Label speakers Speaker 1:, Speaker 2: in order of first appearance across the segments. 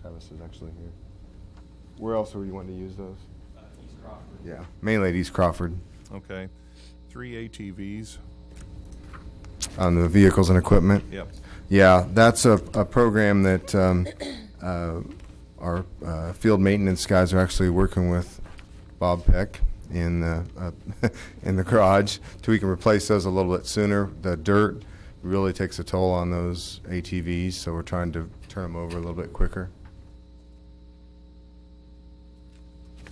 Speaker 1: Travis is actually here. Where else were you wanting to use those?
Speaker 2: uh, East Crawford.
Speaker 1: Yeah, mainly at East Crawford.
Speaker 3: Okay. Three ATVs.
Speaker 1: On the vehicles and equipment.
Speaker 3: Yep.
Speaker 1: Yeah, that's a, a program that um, uh, our uh, field maintenance guys are actually working with Bob Peck in the uh, in the garage so we can replace those a little bit sooner. The dirt really takes a toll on those ATVs, so we're trying to turn them over a little bit quicker.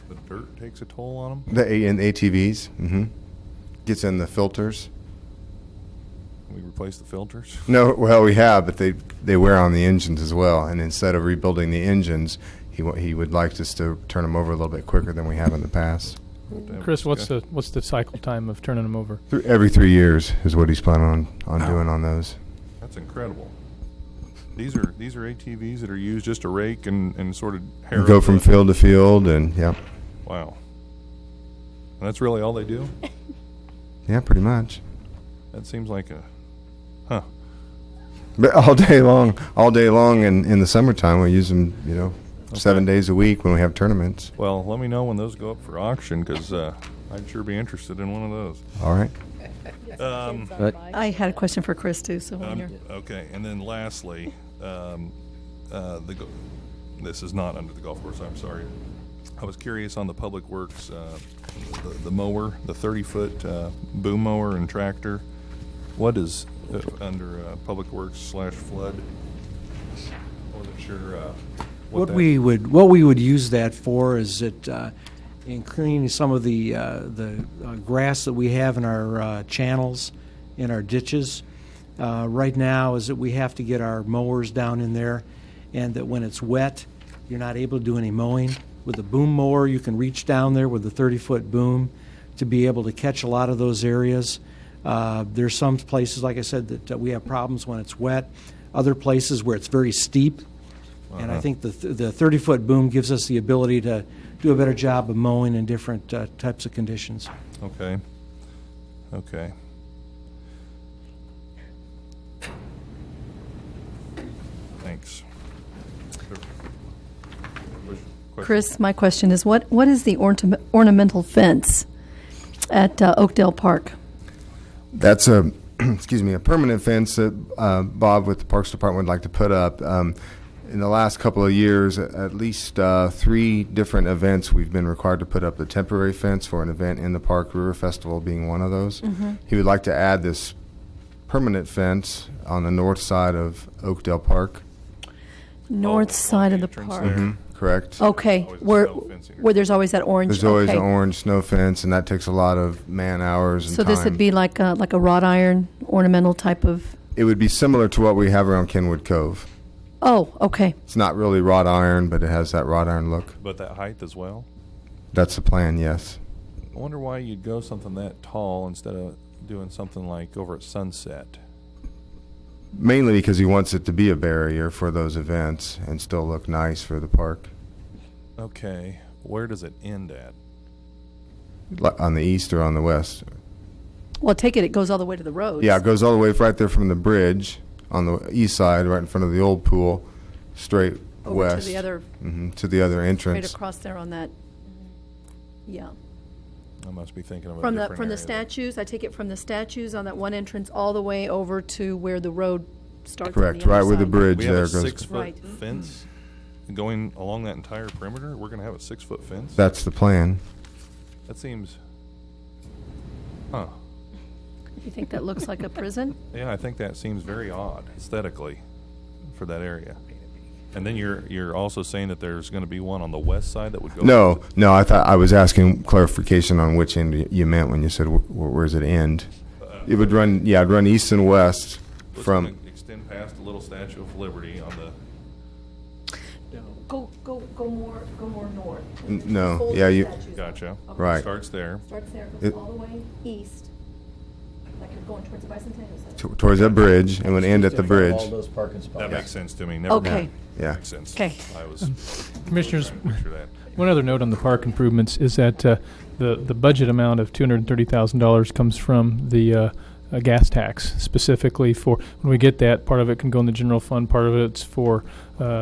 Speaker 3: The dirt takes a toll on them.
Speaker 1: The A- and ATVs mm-hmm. gets in the filters.
Speaker 3: We replace the filters.
Speaker 1: No, well, we have, but they they wear on the engines as well. And instead of rebuilding the engines, he wa- he would like us to turn them over a little bit quicker than we have in the past.
Speaker 4: Chris, what's the what's the cycle time of turning them over?
Speaker 1: Thr- every three years is what he's planning on on doing on those.
Speaker 3: That's incredible. These are these are ATVs that are used just to rake and, and sort of harrow.
Speaker 1: Go from
Speaker 3: the-
Speaker 1: field to field, and yeah,
Speaker 3: Wow. And that's really all they do?
Speaker 1: yeah, pretty much.
Speaker 3: That seems like a huh.
Speaker 1: But all day long, all day long, and in the summertime we use them. You know, seven days a week when we have tournaments.
Speaker 3: Well, let me know when those go up for auction because uh, I'd sure be interested in one of
Speaker 1: All right.
Speaker 3: those. Um,
Speaker 5: I had a question for Chris too, so when
Speaker 3: Um,
Speaker 5: you're,
Speaker 3: Okay, and then lastly, um, uh, the, go- this is not under the golf course, I'm sorry. I was curious on the Public Works, uh, the the mower, the 30-foot uh, boom mower and tractor. What is uh, under uh, Public Works slash flood? I Wasn't sure uh, what
Speaker 6: What
Speaker 3: that...
Speaker 6: we would, what we would use that for is that, uh, in cleaning some of the, uh, the uh, grass that we have in our uh, channels, in our ditches, uh, right now is that we have to get our mowers down in there, and that when it's wet, you're not able to do any mowing. With a boom mower, you can reach down there with a 30-foot boom to be able to catch a lot of those areas. Uh, There's some places, like I said, that uh, we have problems when it's wet, other places where it's very steep, and I think the th- the 30-foot boom gives us the ability to do a better job of mowing in different uh, types of conditions.
Speaker 3: Okay, okay. Thanks.
Speaker 5: Chris, my question is, what, what is the ornament- ornamental fence at uh, Oakdale Park?
Speaker 1: That's a, excuse me, a permanent fence that uh, Bob with the Parks Department would like to put up. Um, In the last couple of years, a- at least uh, three different events, we've been required to put up the temporary fence for an event in the park, River Festival being one of those.
Speaker 5: Mm-hmm.
Speaker 1: He would like to add this permanent fence on the north side of Oakdale Park,
Speaker 5: North
Speaker 3: Oh,
Speaker 5: side of the
Speaker 3: entrance
Speaker 5: park?
Speaker 3: there.
Speaker 6: Mm-hmm.
Speaker 1: correct?
Speaker 5: Okay,
Speaker 3: Always a
Speaker 5: where,
Speaker 3: snow fencing.
Speaker 5: where there's always that orange?
Speaker 1: There's always an
Speaker 5: okay.
Speaker 1: orange snow fence, and that takes a lot of man-hours and
Speaker 5: So
Speaker 1: time.
Speaker 5: this would be like, a- like a wrought iron ornamental type of,
Speaker 1: It would be similar to what we have around Kenwood Cove.
Speaker 5: oh, okay.
Speaker 1: It's not really wrought iron, but it has that wrought iron look.
Speaker 3: But that height as well?
Speaker 1: That's the plan, yes.
Speaker 3: I wonder why you'd go something that tall instead of doing something like over at sunset.
Speaker 1: Mainly because he wants it to be a barrier for those events and still look nice for the park.
Speaker 3: Okay, where does it end at?
Speaker 1: Li- On the east or on the west?
Speaker 5: Well, take it, it goes all the way to the road.
Speaker 1: Yeah, it goes all the way right there from the bridge on the east side, right in front of the old pool, straight
Speaker 5: Over
Speaker 1: west.
Speaker 5: to the other,
Speaker 1: hmm to the other
Speaker 5: right
Speaker 1: entrance.
Speaker 5: across there on that, yeah.
Speaker 3: I must be thinking of a
Speaker 5: From
Speaker 3: different
Speaker 5: the, from the
Speaker 3: area there.
Speaker 5: statues, I take it from the statues on that one entrance all the way over to where the road starts on the
Speaker 1: Correct,
Speaker 5: other
Speaker 1: right where the
Speaker 5: side.
Speaker 1: bridge
Speaker 3: We have
Speaker 1: there
Speaker 3: a
Speaker 1: goes.
Speaker 3: six-foot
Speaker 5: Right. Mm-hmm.
Speaker 3: fence going along that entire perimeter? We're gonna have a six-foot fence?
Speaker 1: That's the plan.
Speaker 3: That seems, huh.
Speaker 5: You think that looks like a prison?
Speaker 3: Yeah, I think that seems very odd aesthetically for that area. And then you're you're also saying that there's going to be one on the west side that would go.
Speaker 1: No, no, I thought I was asking clarification on which end y- you meant when you said wh- wh- where's it end? It would run, yeah, it'd run east and west
Speaker 3: It's
Speaker 1: from.
Speaker 3: gonna extend past the little Statue of Liberty on the.
Speaker 5: Go, go, go more, go more north.
Speaker 1: N- no, yeah, you-
Speaker 3: Gotcha.
Speaker 1: Right.
Speaker 3: Starts there.
Speaker 5: Starts there,
Speaker 1: It-
Speaker 5: goes all the way east, like you're going towards the bicentennial center.
Speaker 1: t- towards that bridge and would end at the bridge.
Speaker 7: All those parking spots.
Speaker 3: That makes sense to me. Never
Speaker 5: Okay.
Speaker 3: mind.
Speaker 1: Yeah.
Speaker 3: Makes sense.
Speaker 5: Okay.
Speaker 3: I was
Speaker 4: Commissioners,
Speaker 3: trying to picture that.
Speaker 4: one other note on the park improvements is that uh, the the budget amount of two hundred thirty thousand dollars comes from the. Uh, uh gas tax specifically for when we get that part of it can go in the general fund part of it's for uh,